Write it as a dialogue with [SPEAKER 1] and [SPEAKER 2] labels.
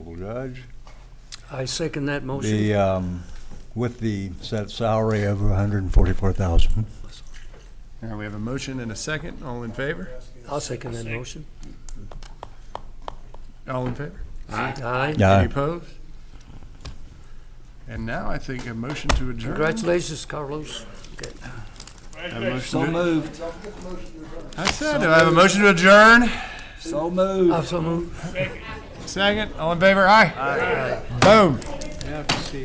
[SPEAKER 1] Judge.
[SPEAKER 2] I second that motion.
[SPEAKER 1] The, um, with the set salary of hundred and forty-four thousand.
[SPEAKER 3] All right, we have a motion and a second. All in favor?
[SPEAKER 1] uh,
[SPEAKER 2] I'll second that motion.
[SPEAKER 3] All in favor?
[SPEAKER 2] Aye.
[SPEAKER 3] Any
[SPEAKER 1] Yeah,
[SPEAKER 3] opposed? And now I think a motion to adjourn.
[SPEAKER 2] Congratulations, Carlos.
[SPEAKER 3] Have a motion
[SPEAKER 4] So
[SPEAKER 3] to-
[SPEAKER 4] moved,
[SPEAKER 3] I said, do I have a motion to adjourn?
[SPEAKER 4] so moved.
[SPEAKER 2] I'll so move.
[SPEAKER 3] Second, all in favor? Aye. Boom.